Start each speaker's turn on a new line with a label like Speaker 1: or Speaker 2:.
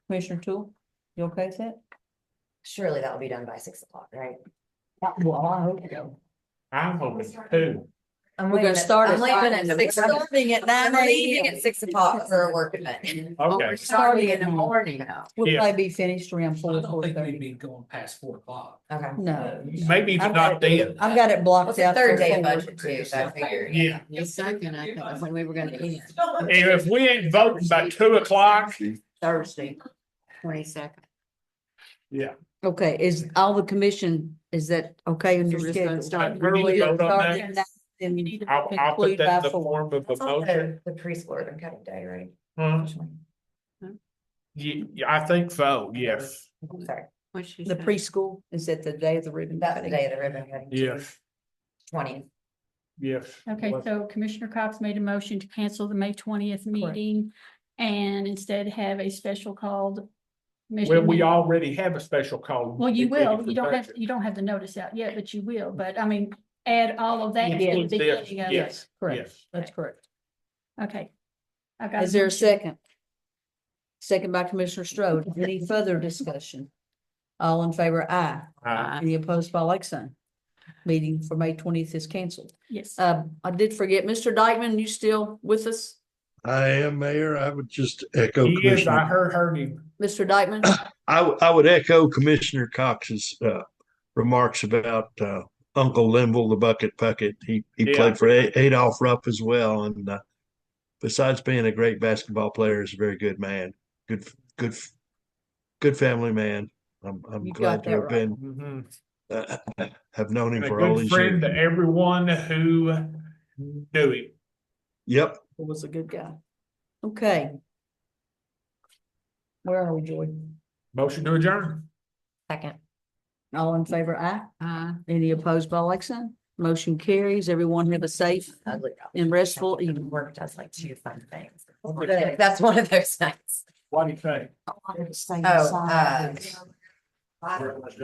Speaker 1: Commissioner Tool, you okay with that?
Speaker 2: Surely that'll be done by six o'clock, right?
Speaker 1: Well, I hope so.
Speaker 3: I'm hoping too.
Speaker 2: I'm
Speaker 1: We're gonna
Speaker 2: leaving at-
Speaker 1: start
Speaker 2: I'm
Speaker 1: at
Speaker 2: leaving
Speaker 1: five.
Speaker 2: at six.
Speaker 1: We're
Speaker 2: o'clock.
Speaker 1: starting at
Speaker 2: I'm
Speaker 1: 9
Speaker 2: leaving
Speaker 1: a.m.
Speaker 2: at six o'clock for a work event.
Speaker 3: Okay,
Speaker 1: starting in the
Speaker 2: morning though.
Speaker 1: We'll
Speaker 3: Yeah.
Speaker 1: probably be finished around
Speaker 4: I
Speaker 1: four,
Speaker 4: don't
Speaker 1: four
Speaker 4: think we'd
Speaker 1: thirty.
Speaker 4: be going past four o'clock.
Speaker 2: Okay.
Speaker 1: No,
Speaker 3: maybe it's not then.
Speaker 1: I've got it
Speaker 2: Well, it's
Speaker 1: blocked
Speaker 2: a
Speaker 1: out.
Speaker 2: third
Speaker 1: for
Speaker 2: day
Speaker 1: four.
Speaker 2: budget too, so I figured.
Speaker 3: Yeah,
Speaker 5: The second, I thought, when we were gonna end,
Speaker 3: and if we ain't voting by two o'clock,
Speaker 5: Thursday, twenty-second.
Speaker 3: yeah.
Speaker 1: Okay, is all the commission, is that okay on your
Speaker 5: We're just
Speaker 1: schedule?
Speaker 5: gonna start
Speaker 3: We need to
Speaker 1: Early,
Speaker 3: vote on
Speaker 1: start
Speaker 3: that.
Speaker 1: at nine, Then you need to
Speaker 3: I'll, I'll put
Speaker 1: conclude
Speaker 3: that
Speaker 1: by
Speaker 3: in the
Speaker 1: four.
Speaker 3: form of a
Speaker 2: That's
Speaker 3: motion.
Speaker 2: also The preschool and cutting day, right?
Speaker 3: Huh?
Speaker 2: Which one?
Speaker 3: You, you- I think so, yes,
Speaker 2: I'm Oh, Sorry,
Speaker 5: What she
Speaker 1: The
Speaker 5: said.
Speaker 1: preschool, is that the day of the ribbon
Speaker 2: that's the
Speaker 1: cutting?
Speaker 2: day of the ribbon cutting.
Speaker 3: yes,
Speaker 2: Twenty.
Speaker 3: yes.
Speaker 6: Okay, so Commissioner Cox made a motion to cancel the May twentieth meeting and instead have a special called.
Speaker 3: Well,
Speaker 6: commission
Speaker 3: we
Speaker 6: meeting.
Speaker 3: already have a special call.
Speaker 6: Well, you
Speaker 3: We did it
Speaker 6: will,
Speaker 3: for
Speaker 6: you don't have,
Speaker 3: budget.
Speaker 6: you don't have the notice out yet, but you will, but I mean, add all of that. at the
Speaker 3: Include this,
Speaker 6: beginning of it.
Speaker 3: Yes,
Speaker 1: Correct,
Speaker 3: yes.
Speaker 1: that's correct.
Speaker 6: Okay. I got
Speaker 1: Is there a
Speaker 6: motion.
Speaker 1: second? Second by Commissioner Strode. Any further discussion? All in favor, aye.
Speaker 3: Uh,
Speaker 1: Any opposed, by like sign. Meeting for May twentieth is canceled.
Speaker 6: Yes.
Speaker 1: Um, I did forget, Mr. Dykeman, you still with us?
Speaker 7: I am mayor. I would just echo
Speaker 3: He is, I
Speaker 7: Commissioner.
Speaker 3: heard, heard him.
Speaker 1: Mr. Dykeman?
Speaker 7: I, w- I would echo Commissioner Cox's uh, remarks about uh, Uncle Linville, the bucket pucket. He he
Speaker 3: Yeah.
Speaker 7: played for A- Adolph Rupp as well, and uh, besides being a great basketball player, is a very good man. Good f- good f- good family man. I'm I'm
Speaker 1: You got
Speaker 7: glad to
Speaker 1: that
Speaker 7: have been
Speaker 3: Mhm.
Speaker 7: uh, have known him
Speaker 3: A
Speaker 7: for all
Speaker 3: good
Speaker 7: these
Speaker 3: friend to
Speaker 7: years.
Speaker 3: everyone who knew him.
Speaker 7: Yep.
Speaker 1: He was a good guy. Okay. Where are we, Jordan?
Speaker 3: Motion to adjourn.
Speaker 2: Second.
Speaker 1: All in favor, aye.
Speaker 5: Uh,
Speaker 1: Any opposed, by like sign. Motion carries. Everyone have a safe
Speaker 2: Ugly.
Speaker 1: and restful
Speaker 2: Even
Speaker 1: evening.
Speaker 2: work does like two fun things.
Speaker 3: Okay.
Speaker 2: That's one of those nights. uh,
Speaker 3: What do you think?
Speaker 2: Oh, uh.